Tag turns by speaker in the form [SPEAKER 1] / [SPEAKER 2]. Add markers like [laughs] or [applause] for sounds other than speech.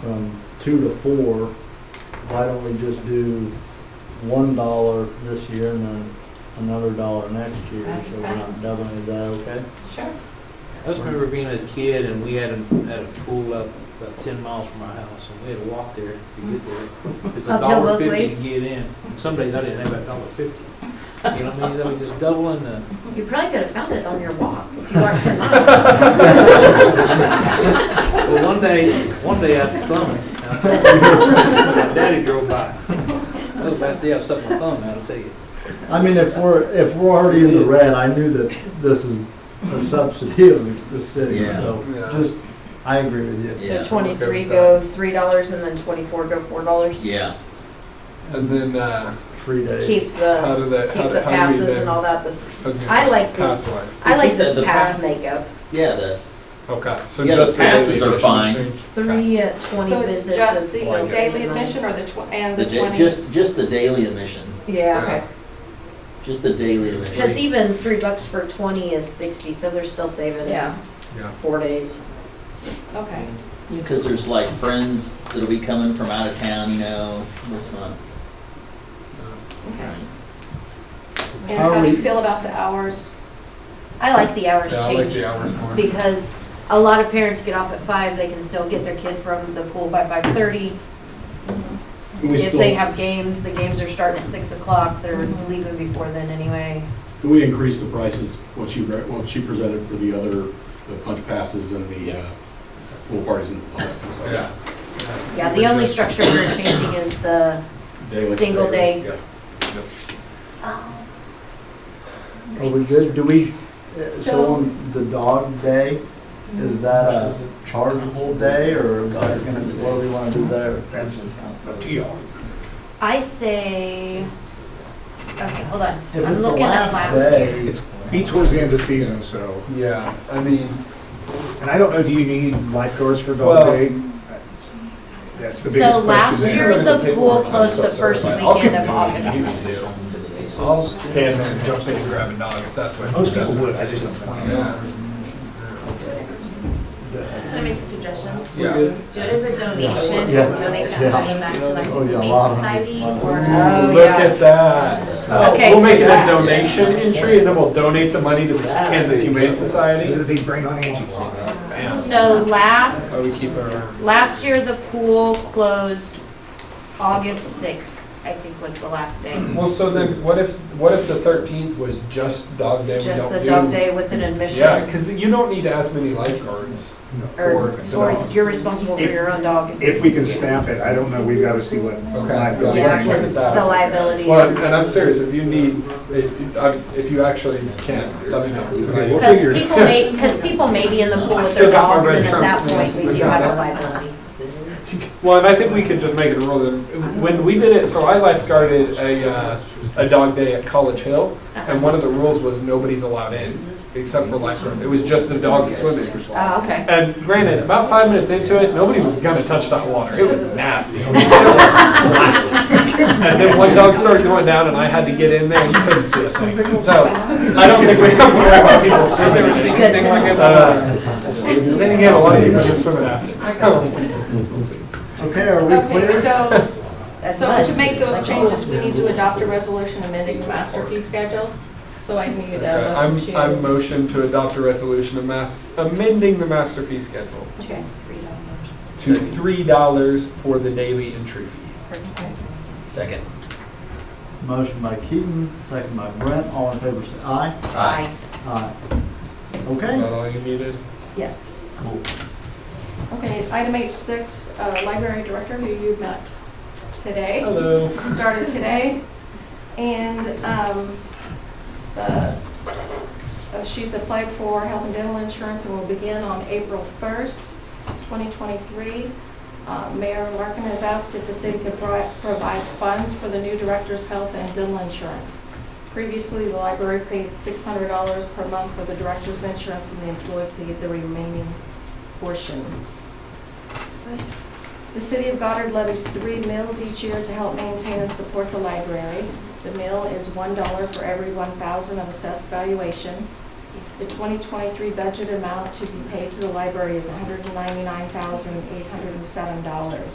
[SPEAKER 1] from two to four, why don't we just do one dollar this year and then another dollar next year?
[SPEAKER 2] That's
[SPEAKER 1] So we're
[SPEAKER 2] fine.
[SPEAKER 1] not doubling, is that okay?
[SPEAKER 2] Sure.
[SPEAKER 3] I just remember being a kid and we had a, had a pool up about ten miles from our house and we had to walk there to get there. It's a
[SPEAKER 4] Uphill
[SPEAKER 3] dollar
[SPEAKER 4] both
[SPEAKER 3] fifty to
[SPEAKER 4] ways?
[SPEAKER 3] get in. And some days I didn't have that dollar fifty. You know what I mean? That was just doubling the,
[SPEAKER 4] You probably could have found it on your walk if you walked 10 miles.
[SPEAKER 2] [laughs]
[SPEAKER 3] well, one day, one day I thumbed it. My [laughs] Daddy drove by. That was the last day I sucked my thumb out, I'll tell you.
[SPEAKER 1] I mean, if we're, if we're already in the red, I knew that this is a subsidy of the city,
[SPEAKER 5] Yeah.
[SPEAKER 1] so
[SPEAKER 6] Yeah.
[SPEAKER 1] just, I agree with you.
[SPEAKER 5] Yeah.
[SPEAKER 4] So 23 go $3 and then 24 go $4.
[SPEAKER 5] Yeah,
[SPEAKER 6] And then uh,
[SPEAKER 1] Free day.
[SPEAKER 4] Keep
[SPEAKER 6] how
[SPEAKER 4] the,
[SPEAKER 6] do that? how
[SPEAKER 4] keep
[SPEAKER 6] do-
[SPEAKER 4] the
[SPEAKER 6] how do we
[SPEAKER 4] passes
[SPEAKER 6] then-
[SPEAKER 4] and all that. This,
[SPEAKER 6] okay,
[SPEAKER 4] I like this,
[SPEAKER 6] Pass-wise.
[SPEAKER 4] I like
[SPEAKER 5] The-
[SPEAKER 4] this
[SPEAKER 5] the
[SPEAKER 4] pass
[SPEAKER 5] pass-
[SPEAKER 4] makeup.
[SPEAKER 5] yeah, the,
[SPEAKER 6] Okay, so
[SPEAKER 5] Yeah, the
[SPEAKER 6] just
[SPEAKER 5] passes
[SPEAKER 6] daily
[SPEAKER 5] are
[SPEAKER 6] admission
[SPEAKER 5] fine.
[SPEAKER 6] change. Okay.
[SPEAKER 4] Three at 20
[SPEAKER 2] So
[SPEAKER 4] visits.
[SPEAKER 2] it's just
[SPEAKER 4] is
[SPEAKER 2] the
[SPEAKER 4] like
[SPEAKER 2] daily
[SPEAKER 4] 79.
[SPEAKER 2] admission or the tw- and
[SPEAKER 5] the
[SPEAKER 2] the
[SPEAKER 5] da-
[SPEAKER 2] twenty?
[SPEAKER 5] just, just the daily admission,
[SPEAKER 4] Yeah.
[SPEAKER 2] Okay.
[SPEAKER 5] just the daily
[SPEAKER 4] Because
[SPEAKER 5] admission.
[SPEAKER 4] even three bucks for 20 is 60, so they're still saving it
[SPEAKER 2] Yeah,
[SPEAKER 6] Yeah.
[SPEAKER 4] four days.
[SPEAKER 2] okay.
[SPEAKER 5] Because there's like friends that'll be coming from out of town, you know, this month.
[SPEAKER 2] Okay. And
[SPEAKER 1] How
[SPEAKER 2] how
[SPEAKER 1] are
[SPEAKER 2] do you
[SPEAKER 1] we-
[SPEAKER 2] feel about the hours?
[SPEAKER 4] I like the hours
[SPEAKER 6] Yeah, I like
[SPEAKER 4] change
[SPEAKER 6] the hours more.
[SPEAKER 4] because a lot of parents get off at five, they can still get their kid from the pool by 5:30.
[SPEAKER 7] Can we
[SPEAKER 4] If they
[SPEAKER 7] still,
[SPEAKER 4] have games, the games are starting at six o'clock, they're
[SPEAKER 2] Mhm.
[SPEAKER 1] Mm-hmm.
[SPEAKER 4] leaving before then anyway.
[SPEAKER 7] can we increase the prices, what she, re- what she presented for the other, the punch passes and the uh, pool parties and all that kind of stuff?
[SPEAKER 6] Yeah.
[SPEAKER 4] Yeah, the only
[SPEAKER 6] Just-
[SPEAKER 4] structure we're changing is the,
[SPEAKER 7] Daily-
[SPEAKER 4] Single day.
[SPEAKER 7] Yeah.
[SPEAKER 1] Are we good? Do we, uh, so on the dog day, is that a chargeable day or is that gonna, what do we wanna do there?
[SPEAKER 7] That's
[SPEAKER 1] If
[SPEAKER 7] To y'all.
[SPEAKER 4] I say, okay, hold on. I'm
[SPEAKER 1] it's the
[SPEAKER 4] looking
[SPEAKER 1] last
[SPEAKER 4] at last year.
[SPEAKER 1] day,
[SPEAKER 8] It's be towards the end of the season, so,
[SPEAKER 6] Yeah, I mean,
[SPEAKER 8] and I don't know, do you need lifeguards for
[SPEAKER 6] Well-
[SPEAKER 8] dog day? That's the biggest
[SPEAKER 4] So
[SPEAKER 8] question.
[SPEAKER 4] last
[SPEAKER 8] there.
[SPEAKER 4] year, the pool closed the
[SPEAKER 7] Sorry,
[SPEAKER 4] first
[SPEAKER 7] I'll
[SPEAKER 4] weekend of
[SPEAKER 7] continue.
[SPEAKER 4] August.
[SPEAKER 6] I'll
[SPEAKER 8] Stand there and
[SPEAKER 6] jump in and grab a dog if that's what.
[SPEAKER 8] Most people would, I just don't know.
[SPEAKER 6] Yeah.
[SPEAKER 9] Can I make a suggestion?
[SPEAKER 6] Yeah.
[SPEAKER 9] Do it as a donation,
[SPEAKER 1] Yeah.
[SPEAKER 9] and donate
[SPEAKER 1] Yeah.
[SPEAKER 9] that money back to like
[SPEAKER 1] Oh,
[SPEAKER 9] the
[SPEAKER 1] yeah, a
[SPEAKER 9] Humane
[SPEAKER 1] lot of-
[SPEAKER 9] Society
[SPEAKER 1] lot of-
[SPEAKER 9] or. uh,
[SPEAKER 4] Oh,
[SPEAKER 6] Look
[SPEAKER 4] yeah.
[SPEAKER 6] at that. Oh,
[SPEAKER 4] Okay,
[SPEAKER 6] We'll make it a
[SPEAKER 4] that-
[SPEAKER 6] donation entry and then we'll donate the money to the Kansas Humane Society.
[SPEAKER 8] They bring on Angie.
[SPEAKER 4] So last,
[SPEAKER 6] Oh, we keep our.
[SPEAKER 4] last year, the pool closed August sixth, I think was the last day.
[SPEAKER 6] Well, so then what if, what if the thirteenth was just dog day? we
[SPEAKER 4] Just
[SPEAKER 6] don't
[SPEAKER 4] the
[SPEAKER 6] do-
[SPEAKER 4] dog day with an admission.
[SPEAKER 6] Yeah, because you don't need as many lifeguards for
[SPEAKER 4] Or, or
[SPEAKER 6] dogs.
[SPEAKER 4] you're responsible for your own dog.
[SPEAKER 8] If we can staff it, I don't know, we've got to see what.
[SPEAKER 6] Okay.
[SPEAKER 8] liability
[SPEAKER 4] Yeah,
[SPEAKER 6] let's look at
[SPEAKER 4] because
[SPEAKER 6] that.
[SPEAKER 4] the liability.
[SPEAKER 6] Well, and and I'm serious, if you need, if- if if you actually can, let me know. 'cause I-
[SPEAKER 8] Okay, we'll
[SPEAKER 4] Because
[SPEAKER 8] figure it
[SPEAKER 4] people
[SPEAKER 8] out.
[SPEAKER 4] may, because people may be in the pool with
[SPEAKER 6] Still
[SPEAKER 4] their
[SPEAKER 6] got my
[SPEAKER 4] dogs,
[SPEAKER 6] red
[SPEAKER 4] and at that
[SPEAKER 6] shirts,
[SPEAKER 4] point,
[SPEAKER 6] man.
[SPEAKER 4] we do have a liability.
[SPEAKER 6] Well, and I think we can just make it a rule that when we did it, so I lifeguarded a, uh, a dog day at College Hill, and one of the rules was nobody's allowed in except for lifeguards. It was just the dogs swimming.
[SPEAKER 2] Ah,
[SPEAKER 4] Oh, okay.
[SPEAKER 6] And granted, about five minutes into it, nobody was gonna touch that water. [laughs] It was nasty. And then one dog started going down, and I had to get in there. You couldn't see a thing. So I don't think we have to worry about people swimming or seeing anything like it. Uh, Then again, a lot of people just swim it after.
[SPEAKER 1] Okay, are we
[SPEAKER 2] Okay,
[SPEAKER 1] [laughs] clear?
[SPEAKER 2] so,
[SPEAKER 4] That's
[SPEAKER 2] so
[SPEAKER 4] mine.
[SPEAKER 2] to make those changes, we need to adopt a resolution amending the master fee schedule. So I need
[SPEAKER 6] Okay,
[SPEAKER 2] a
[SPEAKER 6] I'm,
[SPEAKER 2] motion
[SPEAKER 6] I'm uh,
[SPEAKER 2] to.
[SPEAKER 6] motion to adopt a resolution of mas- amending the master fee schedule
[SPEAKER 2] Okay.
[SPEAKER 6] to three dollars for the daily entry fee.
[SPEAKER 5] Second.
[SPEAKER 1] Motion by Keaton, second by Brent, all in favor say aye.
[SPEAKER 4] Aye.
[SPEAKER 1] Aye.
[SPEAKER 6] Is
[SPEAKER 1] Okay,
[SPEAKER 6] that all you needed?
[SPEAKER 4] Yes.
[SPEAKER 1] cool.
[SPEAKER 2] Okay, item H six, uh, library director who you met today.
[SPEAKER 6] Hello.
[SPEAKER 2] started today, and um, uh, uh, she's applied for health and dental insurance and will begin on April 1st, 2023. Uh, Mayor Larkin has asked if the city could pro- provide funds for the new director's health and dental insurance. Previously, the library paid $600 per month for the director's insurance, and the employee paid the remaining portion. The city of Goddard levies three mills each year to help maintain and support the library. The mill is one dollar for every one thousand of assessed valuation. The 2023 budget amount to be paid to the library is $199,807.